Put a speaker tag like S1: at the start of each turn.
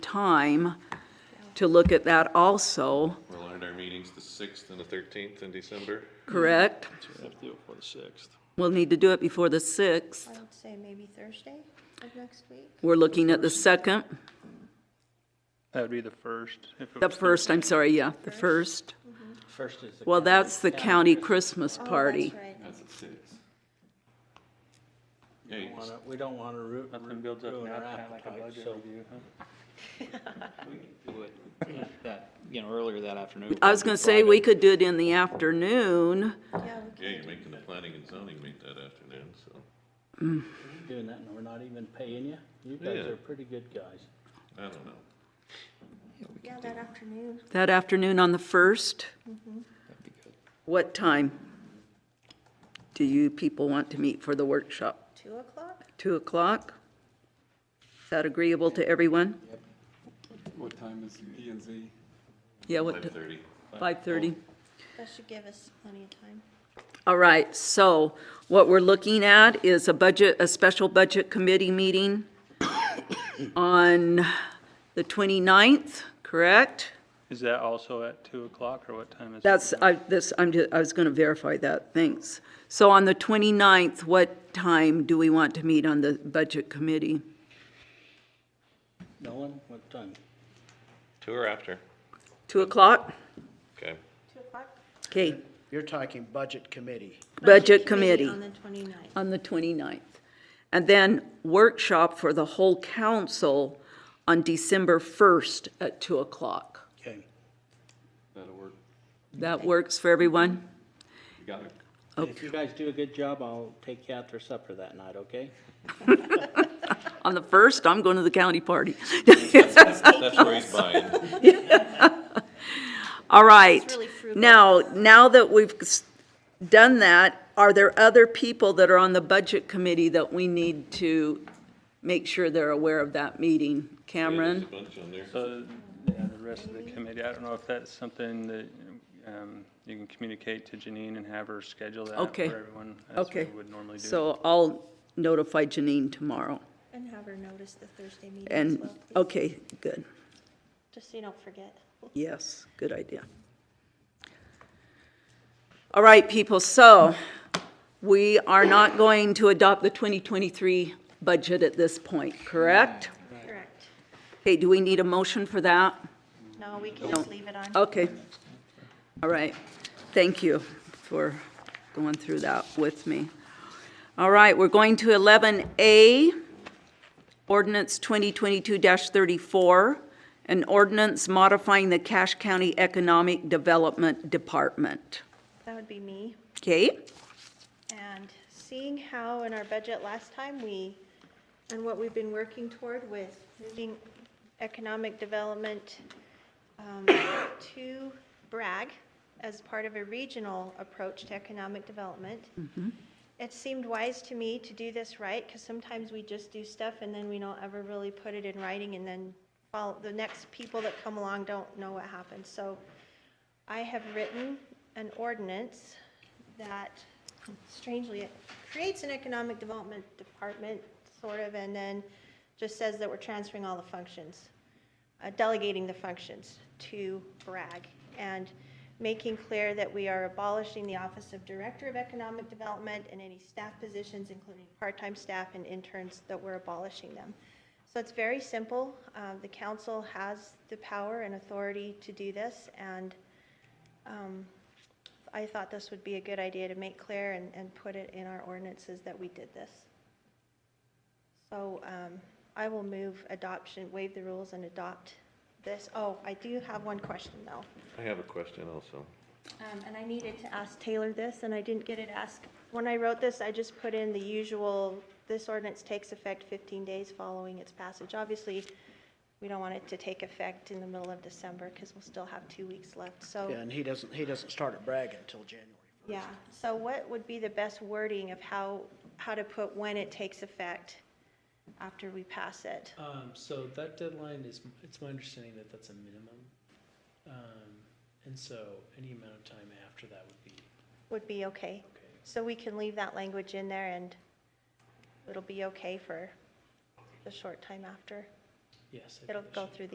S1: time to look at that also,
S2: We're at our meetings the 6th and the 13th in December.
S1: correct?
S3: Have to do it for the sixth.
S1: We'll need to do it before the 6th.
S4: I would say maybe Thursday of next week.
S1: We're looking at the 2nd,
S3: That would be the first. if it
S1: the
S3: was
S1: 1st, I'm sorry, yeah, the 1st.
S5: First is the.
S1: Well, that's the county Christmas
S4: Oh, that's
S1: party.
S4: right.
S2: That's at 6. Yeah, you
S5: We
S2: can
S5: don't wanna- We don't want to root.
S3: Nothing builds up now, kind of like a budget review, huh?
S6: do it that, you know, earlier that afternoon.
S1: I was gonna say, we could do it in the afternoon.
S4: Yeah, we
S2: Yeah, you're
S4: can.
S2: making the planning and zoning meet that afternoon, so,
S5: Doing that, and we're not even paying you. You guys
S2: Yeah.
S5: are pretty good guys.
S2: I don't know.
S4: Yeah, that afternoon.
S1: That afternoon on the 1st? What time do you people want to meet for the workshop?
S4: Two o'clock?
S1: 2 o'clock? Is that agreeable to everyone?
S7: What time is E and Z?
S1: Yeah, what,
S2: 5:30.
S1: 5:30?
S4: That should give us plenty of time.
S1: All right, so what we're looking at is a budget, a special budget committee meeting on the 29th, correct?
S3: Is that also at two o'clock or what time is?
S1: That's, I, this, I'm, ju- I was gonna verify that, thanks. So on the 29th, what time do we want to meet on the budget committee?
S5: No one? What time?
S2: Two or after?
S1: 2 o'clock?
S2: Okay.
S4: Two o'clock?
S1: Okay,
S8: You're talking budget committee.
S1: budget committee
S4: On the twenty-ninth.
S1: on the 29th. And then workshop for the whole council on December 1st at 2 o'clock.
S5: Okay.
S7: That'll work.
S1: That works for everyone?
S7: You got it.
S5: If you guys do a good job, I'll take you out for supper that night, okay?
S1: On the first, I'm going to the county party.
S2: That's where he's buying.
S1: All right.
S4: really frugal.
S1: Now, now that we've s- done that, are there other people that are on the budget committee that we need to make sure they're aware of that meeting?
S2: There's a
S1: Cameron?
S2: bunch on there.
S3: So, yeah, the rest of the committee, I don't know if that's something that, um, you can communicate to Janine and have her schedule that for
S1: Okay.
S3: everyone.
S1: Okay.
S3: As we would normally do.
S1: So I'll notify Janine tomorrow.
S4: And have her notice the Thursday meeting as
S1: And,
S4: well, please,
S1: okay, good.
S4: just so you don't forget.
S1: Yes, good idea. All right, people, so we are not going to adopt the 2023 budget at this point, correct?
S4: Correct.
S1: Okay, do we need a motion for that?
S4: No, we can just leave it on.
S1: Okay. All right. Thank you for going through that with me. All right, we're going to 11A, ordinance 2022-34, an ordinance modifying the Cache County Economic Development Department.
S4: That would be me.
S1: Okay?
S4: And seeing how in our budget last time, we, and what we've been working toward with moving economic development um, to Bragg as part of a regional approach to economic development, it seemed wise to me to do this right, because sometimes we just do stuff and then we don't ever really put it in writing, and then follow- the next people that come along don't know what happened. So I have written an ordinance that strangely, it creates an economic development department, sort of, and then just says that we're transferring all the functions, uh, delegating the functions to Bragg, and making clear that we are abolishing the Office of Director of Economic Development and any staff positions, including part-time staff and interns, that we're abolishing them. So it's very simple. Uh, The council has the power and authority to do this, and um, I thought this would be a good idea to make clear and, and put it in our ordinances that we did this. So um, I will move adoption, waive the rules and adopt this. Oh, I do have one question though.
S2: I have a question also.
S4: Um, And I needed to ask Taylor this, and I didn't get it asked. When I wrote this, I just put in the usual, this ordinance takes effect 15 days following its passage. Obviously, we don't want it to take effect in the middle of December because we'll still have two weeks left. So
S8: Yeah, and he doesn't, he doesn't start at Bragg until January.
S4: Yeah, so what would be the best wording of how, how to put when it takes effect after we pass it?
S9: Um, so that deadline is, it's my understanding that that's a minimum. Um, and so any amount of time after that would be
S4: Would be okay.
S9: okay.
S4: So we can leave that language in there and it'll be okay for the short time after.
S9: Yes. I think
S4: It'll
S9: that
S4: go
S9: should-
S4: through the